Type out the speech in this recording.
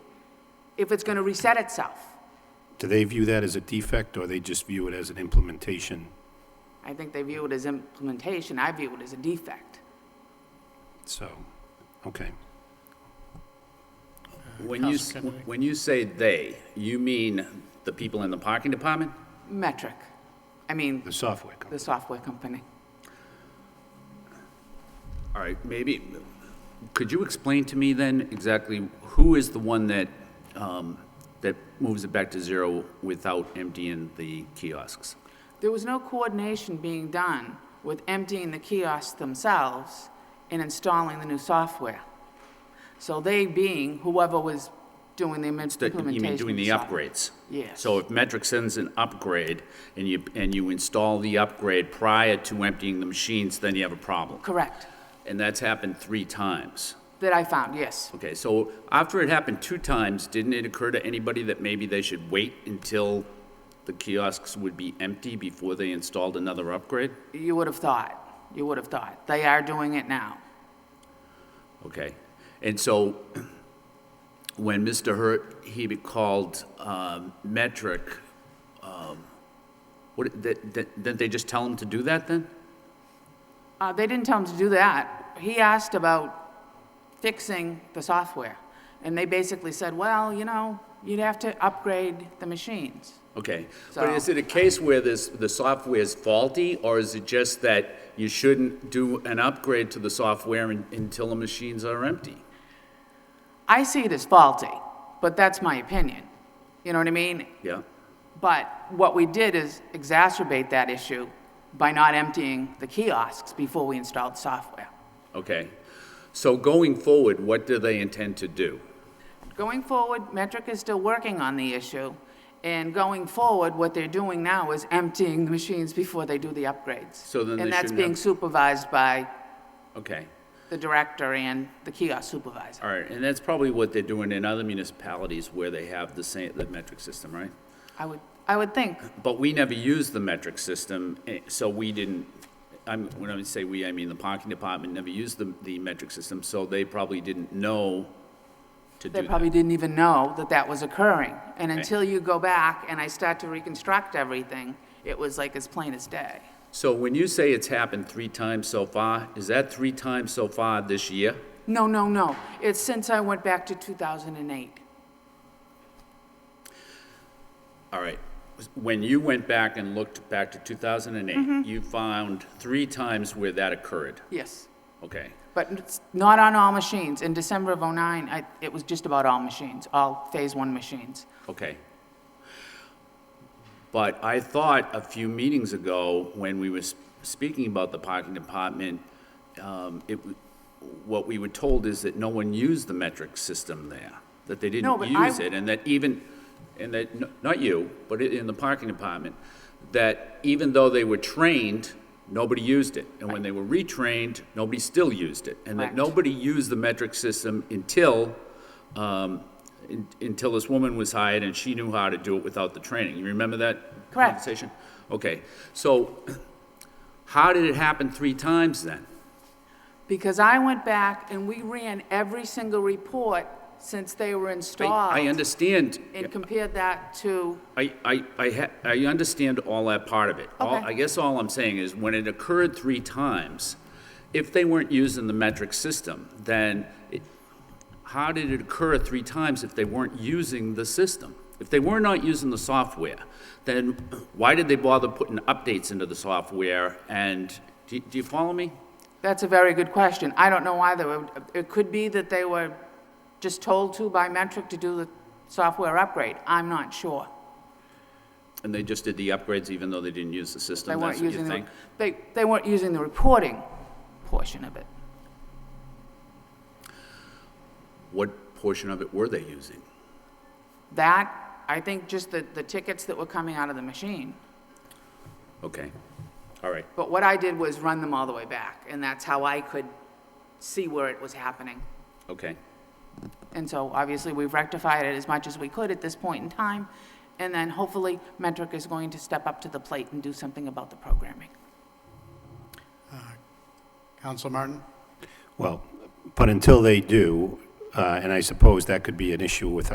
if it's going to reset itself. Do they view that as a defect, or they just view it as an implementation? I think they view it as implementation, I view it as a defect. So, okay. When you, s- when you say "they," you mean the people in the parking department? Metric, I mean, The software company. the software company. All right, maybe, could you explain to me then exactly who is the one that, um, that moves it back to zero without emptying the kiosks? There was no coordination being done with emptying the kiosks themselves and installing the new software. So they being whoever was doing the That- implementation. You mean doing of the software. upgrades? Yes. So if Metric sends an upgrade and you, and you install the upgrade prior to emptying the machines, then you have a problem. Correct, And that's happened three times. that I found, yes. Okay, so after it happened two times, didn't it occur to anybody that maybe they should wait until the kiosks would be empty before they installed another upgrade? You would have thought, you would have thought. They are doing it now. Okay. And so when Mr. Hurt, he be- called um, Metric, um, what, that- that- didn't they just tell him to do that then? Uh, they didn't tell him to do that. He asked about fixing the software. And they basically said, well, you know, you'd have to upgrade the machines. Okay. But is So- it a case where this, the software is faulty, or is it just that you shouldn't do an upgrade to the software un- until the machines are empty? I see it as faulty, but that's my opinion. You know what I mean? Yeah? But what we did is exacerbate that issue by not emptying the kiosks before we installed software. Okay. So going forward, what do they intend to do? Going forward, Metric is still working on the issue, and going forward, what they're doing now is emptying the machines before they do the upgrades. So then they And that's shouldn't being have- supervised by Okay. the director and the kiosk supervisor. All right, and that's probably what they're doing in other municipalities where they have the same, the metric system, right? I would, I would think, But we never used the metric system, eh, so we didn't, I'm, when I say we, I mean the parking department never used the, the metric system, so they probably didn't know to do they that. probably didn't even know that that was occurring. And Okay. until you go back and I start to reconstruct everything, it was like as plain as day. So when you say it's happened three times so far, is that three times so far this year? No, no, no. It's since I went back to 2008. All right. When you went back and looked back to 2008, you found three times where that occurred. Yes. Okay. But it's not on all machines. In December of '09, I, it was just about all machines, all Phase One machines. Okay. But I thought a few meetings ago, when we were speaking about the parking department, um, it, w- what we were told is that no one used the metric system there, that they No, didn't but I- use it, and that even, and that, n- not you, but i- in the parking department, that even though they were trained, nobody used it. And when they were retrained, nobody still used it. And that Correct. nobody used the metric system until um, in- until this woman was hired and she knew how to do it without the training. You remember that Correct. conversation? Okay, so how did it happen three times then? Because I went back and we ran every single report since they were I- installed. I understand, And compared that to, I, I, I ha- I understand all that part of it. All- Okay. I guess all I'm saying is when it occurred three times, if they weren't using the metric system, then it- how did it occur three times if they weren't using the system? If they were not using the software, then why did they bother putting updates into the software? And, do do you follow me? that's a very good question. I don't know why they were, it could be that they were just told to by Metric to do the software upgrade. I'm not sure. And they just did the upgrades even though they didn't use the They system? weren't That's what you using, the think? they, they weren't using the reporting portion of it. What portion of it were they using? That, I think just the, the tickets that were coming out of the machine. Okay, all right. But what I did was run them all the way back, and that's how I could see where it was happening. Okay. And so obviously, we've rectified it as much as we could at this point in time, and then hopefully Metric is going to step up to the plate and do something about the programming. Counsel Martin? Well, but until they do, uh, and I suppose that could be an issue with